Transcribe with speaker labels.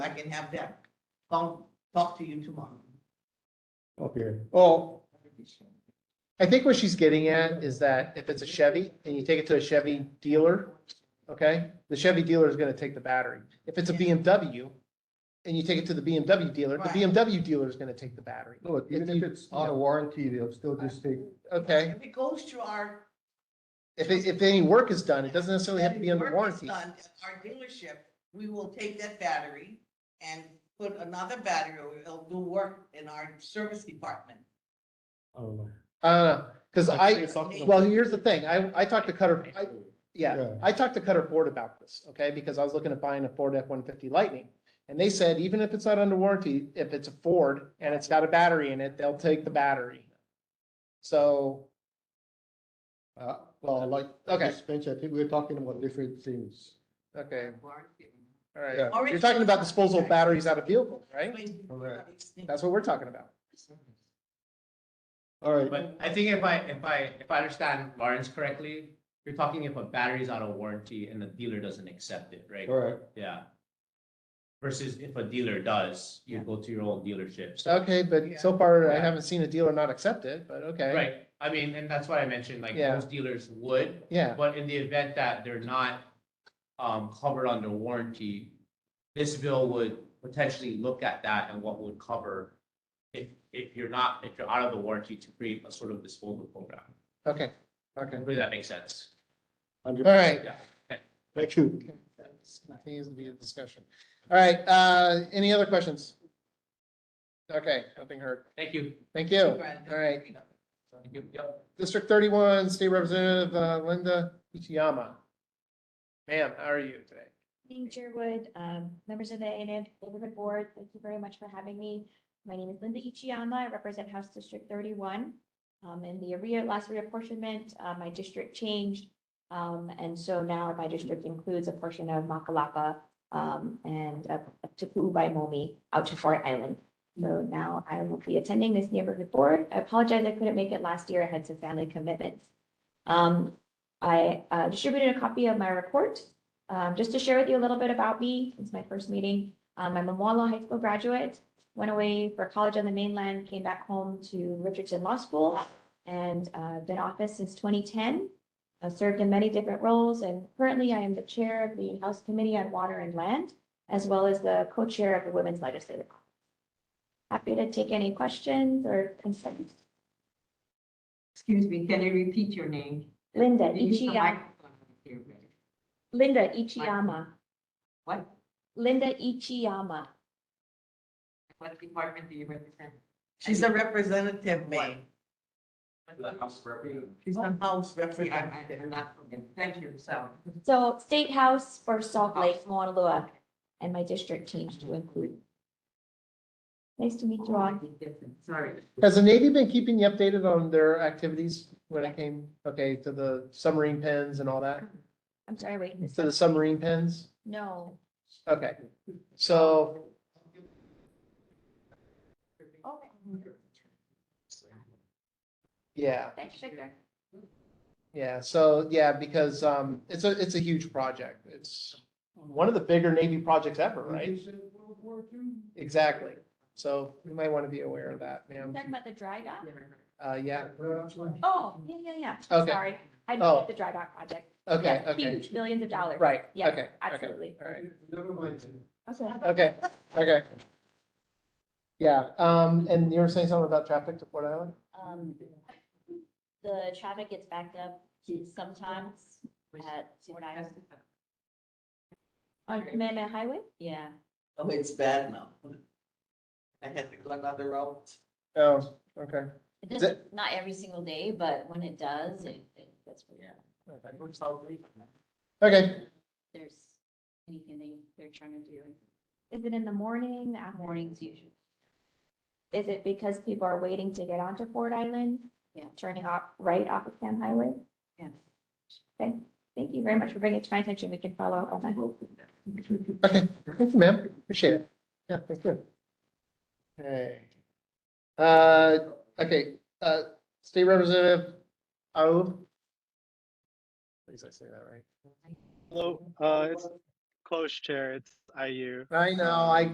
Speaker 1: I can have them come talk to you tomorrow.
Speaker 2: Okay.
Speaker 3: Oh,
Speaker 2: Well, I think what she's getting at is that if it's a Chevy and you take it to a Chevy dealer, okay? The Chevy dealer is gonna take the battery. If it's a BMW and you take it to the BMW dealer, the
Speaker 1: Right.
Speaker 2: BMW dealer is gonna take the battery.
Speaker 3: Look, even
Speaker 2: If
Speaker 3: if
Speaker 2: you-
Speaker 3: it's out of warranty, they'll still just take,
Speaker 2: Okay,
Speaker 1: If it goes to our.
Speaker 2: if, it- if any work is done, it doesn't necessarily have to be
Speaker 1: and
Speaker 2: under
Speaker 1: work is
Speaker 2: warranty.
Speaker 1: done at Our dealership, we will take that battery and put another battery, or it'll do work in our service department.
Speaker 2: Uh, cause I,
Speaker 1: something-
Speaker 2: well, here's the thing. I, I talked to Cutter, I, Yeah,
Speaker 3: Yeah.
Speaker 2: I talked to Cutter Ford about this, okay, because I was looking at buying a Ford F one fifty Lightning. And they said, even if it's not under warranty, if it's a Ford and it's got a battery in it, they'll take the battery. So,
Speaker 3: uh, well, like,
Speaker 2: Okay.
Speaker 3: okay, Spencer, I think we're talking about different things.
Speaker 2: okay,
Speaker 1: Warranty.
Speaker 2: all right.
Speaker 3: Yeah.
Speaker 1: All right.
Speaker 2: You're talking about disposal of batteries out of vehicles, right?
Speaker 3: Correct.
Speaker 2: That's what we're talking about.
Speaker 3: All right,
Speaker 4: But I think if I, if I, if I understand Lawrence correctly, you're talking if a battery's out of warranty and the dealer doesn't accept it, right?
Speaker 3: all right,
Speaker 4: Yeah. Versus if a dealer does, you go to your own dealership. So,
Speaker 2: Okay, but so far I haven't seen a dealer not accept it, but okay,
Speaker 4: right, I mean, and that's why I mentioned, like,
Speaker 2: Yeah.
Speaker 4: most dealers would,
Speaker 2: yeah,
Speaker 4: but in the event that they're not um, covered under warranty, this bill would potentially look at that and what would cover if, if you're not, if you're out of the warranty to create a sort of disposal program.
Speaker 2: okay, okay.
Speaker 4: Hopefully that makes sense.
Speaker 2: All right,
Speaker 4: Yeah.
Speaker 3: thank you.
Speaker 2: Continues to be a discussion. All right, uh, any other questions? Okay, nothing heard.
Speaker 4: Thank you.
Speaker 2: Thank you. All right,
Speaker 4: Thank you. Yep.
Speaker 2: District thirty-one, State Representative uh, Linda Ichiyama. Ma'am, how are you today?
Speaker 5: Dean Sherwood, um, members of the NN Neighborhood Board, thank you very much for having me. My name is Linda Ichiyama. I represent House District thirty-one. Um, in the area, last reapportionment, uh, my district changed. Um, and so now my district includes a portion of Makalapa, um, and up up to Puubaimomi out to Fort Island. So now I will be attending this neighborhood board. I apologize, I couldn't make it last year. I had some family commitments. Um, I, uh, distributed a copy of my report um, just to share with you a little bit about me, it's my first meeting. Um, I'm a Moalo High School graduate, went away for college on the mainland, came back home to Richardson Law School and uh, been office since 2010. I've served in many different roles and currently I am the chair of the House Committee on Water and Land, as well as the co-chair of the Women's Legislative. Conference. Happy to take any questions or concerns.
Speaker 6: Excuse me, can you repeat your name?
Speaker 5: Linda E
Speaker 6: You need a
Speaker 5: Ichiyama,
Speaker 6: microphone here, really.
Speaker 5: Linda Ichiyama,
Speaker 6: What,
Speaker 5: Linda Ichiyama.
Speaker 6: what department do you represent?
Speaker 1: She's a representative, May.
Speaker 4: The House of Representatives.
Speaker 1: She's a house
Speaker 6: Yeah, I- I'm
Speaker 1: representative.
Speaker 6: not from it. Thank you, so.
Speaker 5: So State House for Salt Lake, Mauna Loa, and my district changed to include. Nice to meet you all.
Speaker 6: Sorry.
Speaker 2: Has the Navy been keeping you updated on their activities when it came, okay, to the submarine pens and all that?
Speaker 5: I'm sorry, wait, this-
Speaker 2: To the submarine pens?
Speaker 5: no.
Speaker 2: Okay, so
Speaker 5: Okay,
Speaker 2: yeah.
Speaker 5: thanks, Victor.
Speaker 2: Yeah, so, yeah, because, um, it's a, it's a huge project. It's one of the bigger Navy projects ever, right?
Speaker 5: Mm-hmm.
Speaker 2: Exactly. So you might want to be aware of that, ma'am.
Speaker 5: Talking about the dry dock?
Speaker 2: Uh, yeah,
Speaker 5: Oh, yeah, yeah, yeah,
Speaker 2: Okay.
Speaker 5: sorry. I
Speaker 2: Oh.
Speaker 5: know the dry dock project.
Speaker 2: okay,
Speaker 5: Yeah,
Speaker 2: okay,
Speaker 5: Huge, billions of dollars.
Speaker 2: right,
Speaker 5: Yeah,
Speaker 2: okay, okay,
Speaker 5: Absolutely.
Speaker 2: all right,
Speaker 5: Okay.
Speaker 2: okay, okay. Yeah, um, and you were saying something about traffic to Port Island?
Speaker 7: um, the traffic gets backed up sometimes at Fort Island.
Speaker 5: On Kamehameha Highway?
Speaker 7: Yeah,
Speaker 1: Oh, it's bad now. I had to go another route.
Speaker 2: Oh, okay.
Speaker 7: it
Speaker 2: Is
Speaker 7: doesn't, not every single day, but when it does, it, it gets pretty,
Speaker 2: okay. Okay,
Speaker 7: there's anything they, they're trying to do.
Speaker 5: Is it in the morning, afternoon?
Speaker 7: Mornings usually.
Speaker 5: Is it because people are waiting to get onto Ford Island?
Speaker 7: Yeah.
Speaker 5: Turning off, right off of Cam Highway?
Speaker 7: Yeah.
Speaker 5: Okay, thank you very much for bringing it to my attention. We can follow up on that.
Speaker 2: okay, thank you, ma'am, appreciate it. Yeah, thank you. Okay. Uh, okay, uh, State Representative Arul. Please, I say that right.
Speaker 8: Hello, uh, it's close chair, it's IU.
Speaker 2: I know, I